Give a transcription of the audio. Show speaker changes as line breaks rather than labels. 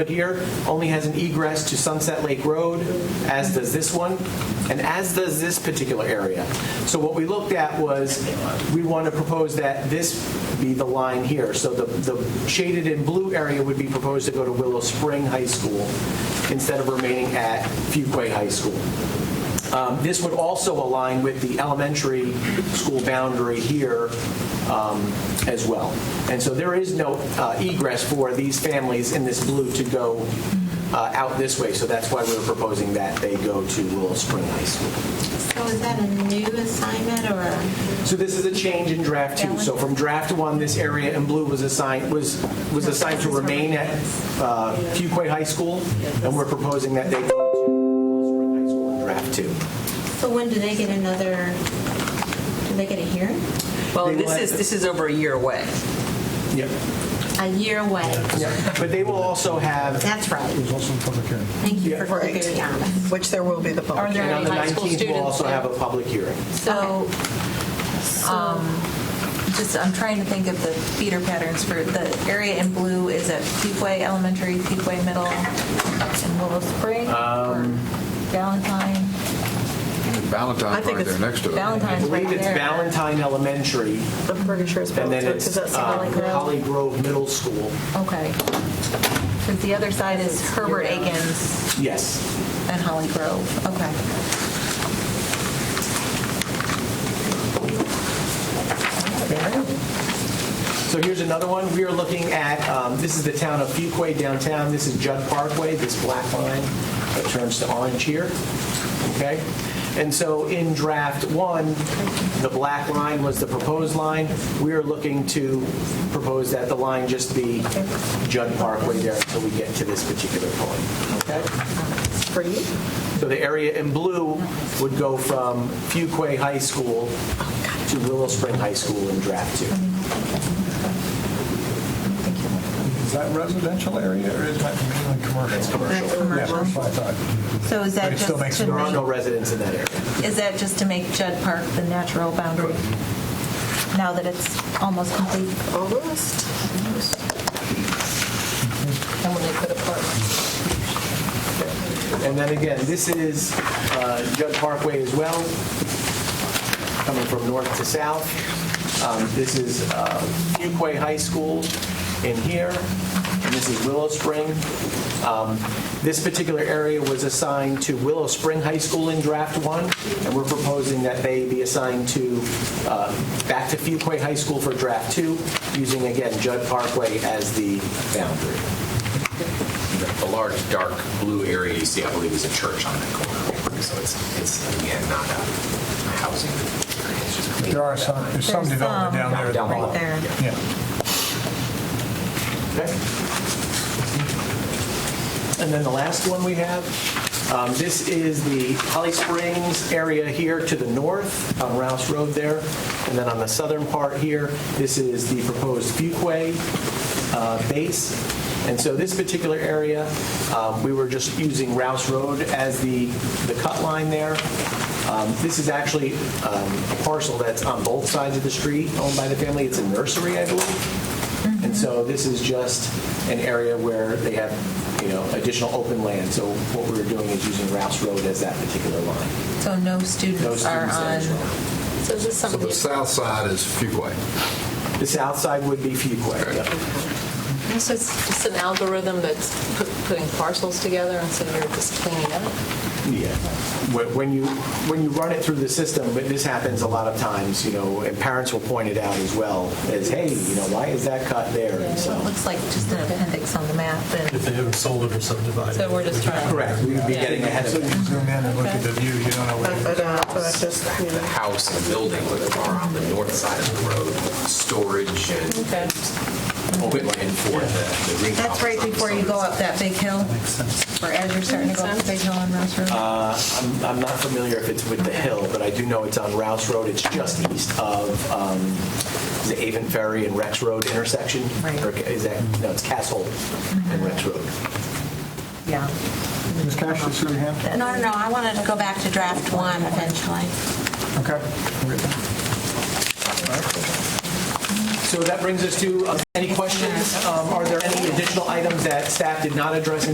here only has an egress to Sunset Lake Road, as does this one, and as does this particular area. So what we looked at was, we want to propose that this be the line here. So the the shaded in blue area would be proposed to go to Willow Spring High School instead of remaining at Fuquay High School. Um, This would also align with the elementary school boundary here um, as well. And so there is no uh, egress for these families in this blue to go uh, out this way, so that's why we're proposing that they go to Willow Spring High School.
So is that a new assignment or?
So this is a change in draft two. So from draft one, this area in blue was assigned, was, was assigned to remain at uh, Fuquay High School, and we're proposing that they go to Willow Spring High School in draft two.
So when do they get another, do they get a hearing?
Well,
They
this
will
is,
have-
this is over a year away.
Yep.
A year away.
Yeah, But they will also have,
That's right.
There's also a public hearing.
Thank you
Yeah.
for keeping me honest.
Which there will be the public
Are there-
and on the
High school
19th, we'll
students,
also
yeah.
have a public hearing.
So,
um, Just, I'm trying to think of the feeder patterns for, the area in blue is at Peakway Elementary, Peakway Middle, and Willow Spring,
Um,
or Valentine,
Valentine
I think
right
it's
there next to it.
I
Valentine's right
believe it's
there.
Valentine Elementary,
The Burger Share is
and then
Valentine.
it's
Does that sound
uh,
like that?
Holly Grove Middle School.
Okay. Because the other side is Herbert Akins
Yes.
and Holly Grove, okay.
So here's another one. We are looking at, um, this is the town of Fuquay downtown. This is Judd Parkway, this black line that turns to orange here. Okay? And so in draft one, the black line was the proposed line. We are looking to propose that the line just be Judd Parkway there until we get to this particular point. Okay?
For you?
So the area in blue would go from Fuquay High School to Willow Spring High School in draft two.
Is that residential area or is that mainly commercial? It's
commercial. That's
commercial.
Yeah, that's what I thought.
So is that
But it still
just
makes
to
it
There are no
make,
residents in that area.
is that just to make Judd Park the natural boundary? Now that it's almost complete?
Almost.
And when they put a park.
And then again, this is uh, Judd Parkway as well, coming from north to south. Um, This is uh, Fuquay High School in here, and this is Willow Spring. Um, This particular area was assigned to Willow Spring High School in Draft 1, and we're proposing that they be assigned to, uh, back to Fuquay High School for Draft 2, using, again, Judd Parkway as the boundary.
The large dark blue area you see, I believe, is a church on that corner. So it's, it's again, not a housing. area, it's just a-
There are some, there's some
There's
development down there. at the
Down
bottom.
Right there.
Yeah.
Okay. And then the last one we have, um, this is the Holly Springs area here to the north on Rouse Road there. And then on the southern part here, this is the proposed Fuquay uh, base. And so this particular area, um, we were just using Rouse Road as the, the cut line there. Um, This is actually um, a parcel that's on both sides of the street owned by the family. It's a nursery, I believe. And so this is just an area where they have, you know, additional open land. So what we were doing is using Rouse Road as that particular line.
So no students are on,
Those students
So is this
So
something?
the south side is Fuquay.
there. The south side would be Fuquay. yeah.
So it's just an algorithm that's put- putting parcels together and so you're just cleaning up?
Yeah. When when you, when you run it through the system, but this happens a lot of times, you know, and parents will point it out as well, as, hey, you know, why is that cut there? And
it
so.
looks like just an appendix on the map,
If
and
they haven't sold it or subdivided.
So we're just trying.
Correct, we would be getting ahead of
So you
it.
zoom in and look at the view, you don't know what it
But,
is.
uh, but just, you
The
know.
house and building that are on the north side of the road, storage and
Okay.
open land for the the green.
that's right before you go up that big hill,
Makes sense.
or as you're starting to go up the big hill on Rouse Road.
I'm I'm not familiar if it's with the hill, but I do know it's on Rouse Road. It's just east of um, the Avon Ferry and Rex Road intersection.
Right.
Or Is that, no, it's Castle and Rex Road.
Yeah.
Ms. Cash, you see your hand?
no, no, no, I wanted to go back to draft one eventually.
Okay.
So that brings us to, uh, any questions? Um, Are there any additional items that staff did not address in